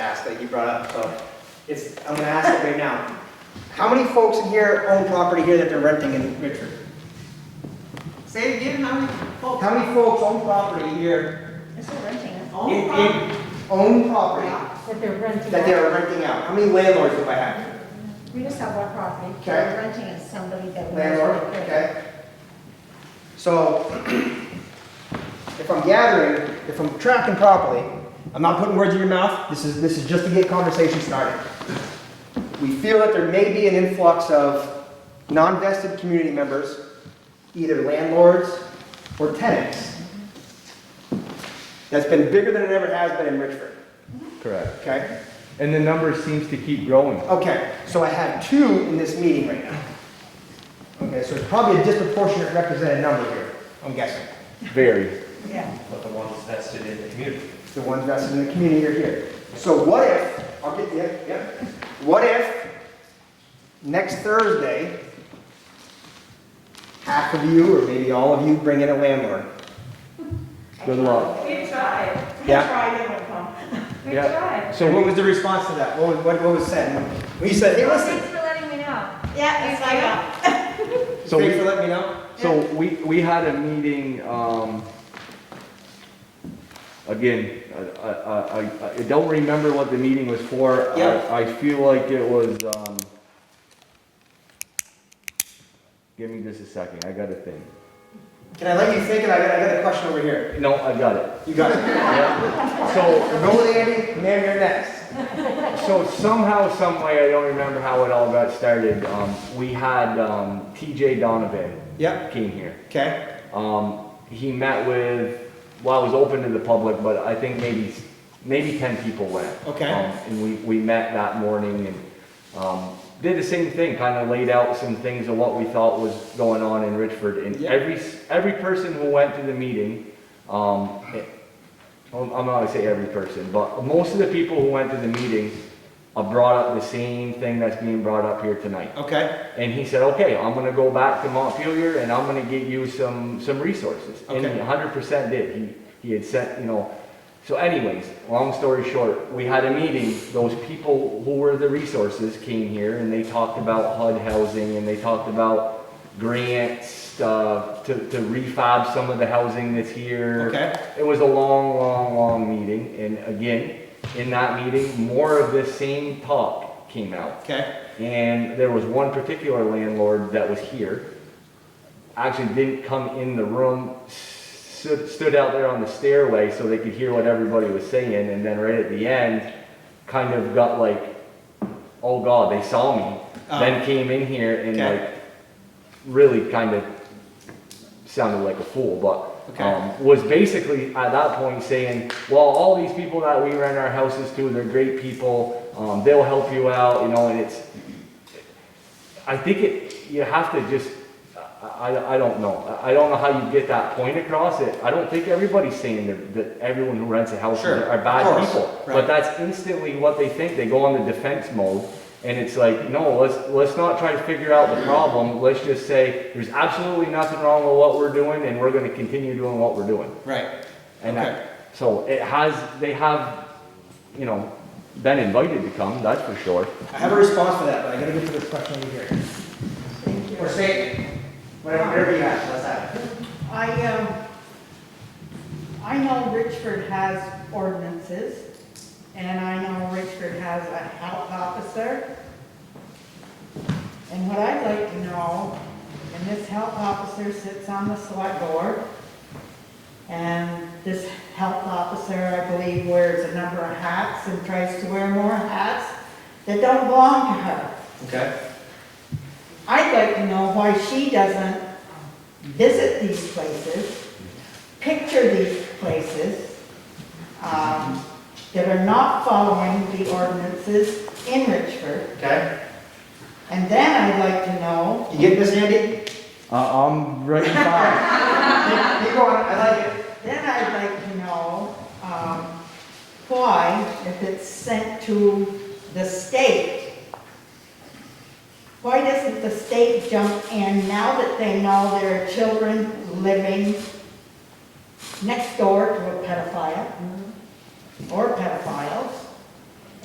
that you brought up, so it's, I'm gonna ask it right now. How many folks in here own property here that they're renting in Richford? Say it again, how many folks? How many folks own property here, It's a renting, it. in, Own property? in, own property that they're renting. that they are renting out? How many landlords do I have? We just have one property. Okay. We're renting it to somebody that. we- Landlord, okay? So, if I'm gathering, if I'm tracking properly, I'm not putting words in your mouth, this is, this is just to get conversation started. We feel that there may be an influx of non-vested community members, either landlords or tenants, that's been bigger than it ever has been in Richford, Correct. okay? And the number seems to keep growing. Okay, so I have two in this meeting right now. Okay, so it's probably a disproportionate represented number here, I'm guessing. Very. Yeah. but the ones vested in the community. The ones that's in the community are here. So what if, I'll get, yeah, yeah. What if next Thursday, half of you, or maybe all of you, bring in a landlord? Good luck. We tried. We Yeah. tried, they wouldn't come. We Yeah. tried. So what was the response to that? What was, what what was said? We said, hey, listen, Thanks for letting me know. Yeah, it's like, So thanks we, for letting me know. so we, we had a meeting, um, again, I, I, I, I don't remember what the meeting was for. Yeah. I, I feel like it was, um, give me just a second, I got a thing. Can I let you think, and I got, I got a question over here. No, I got it. You got it. So, Go with Andy, man, you're next. So somehow, some way, I don't remember how it all got started. Um, we had um, TJ Donovan Yep, came here. okay, Um, he met with, well, it was open to the public, but I think maybe maybe ten people went. Okay. Um, and we, we met that morning and um, did the same thing, kind of laid out some things of what we thought was going on in Richford. And Yeah. every every person who went to the meeting, um, it- I'm I'm not gonna say every person, but most of the people who went to the meeting uh, brought up the same thing that's being brought up here tonight. okay, And he said, okay, I'm gonna go back to Montpelier and I'm gonna get you some, some resources. And he Okay. hundred percent did. He, he had sent, you know, so anyways, long story short, we had a meeting. Those people who were the resources came here and they talked about HUD housing and they talked about grants, uh, to, to refab some of the housing that's here. Okay. It was a long, long, long meeting. And again, in that meeting, more of this same talk came out. okay, And there was one particular landlord that was here, actually didn't come in the room, stood, stood out there on the stairway so they could hear what everybody was saying, and then right at the end, kind of got like, oh God, they saw me, then came in here and Uh-huh. Okay. like, really kind of sounded like a fool, but, Okay. um, was basically at that point saying, well, all these people that we rent our houses to, they're great people, um, they'll help you out, you know, and it's, I think it, you have to just, I, I, I don't know. I- I don't know how you get that point across it. I don't think everybody's saying that, that everyone who rents a house Sure, are are of bad course, people. right. But that's instantly what they think. They go on the defense mode. And it's like, no, let's, let's not try to figure out the problem. Let's just say, there's absolutely nothing wrong with what we're doing and we're gonna continue doing what we're doing. right, And Okay. that, so it has, they have, you know, been invited to come, that's for sure. I have a response for that, but I gotta get to this question over here. Or say, it. whatever, whatever you have, let's have it. I, um, I know Richford has ordinances, and I know Richford has a health officer. And what I'd like to know, and this health officer sits on the select board, and this health officer, I believe, wears a number of hats and tries to wear more hats that don't belong to her. Okay, I'd like to know why she doesn't visit these places, picture these places, um, that are not following the ordinances in Richford. okay. And then I'd like to know, You get this, Andy? Uh, I'm right behind. Keep keep going, I like it. then I'd like to know, um, why, if it's sent to the state, why doesn't the state jump in now that they know there are children living next door to a pedophile or pedophile?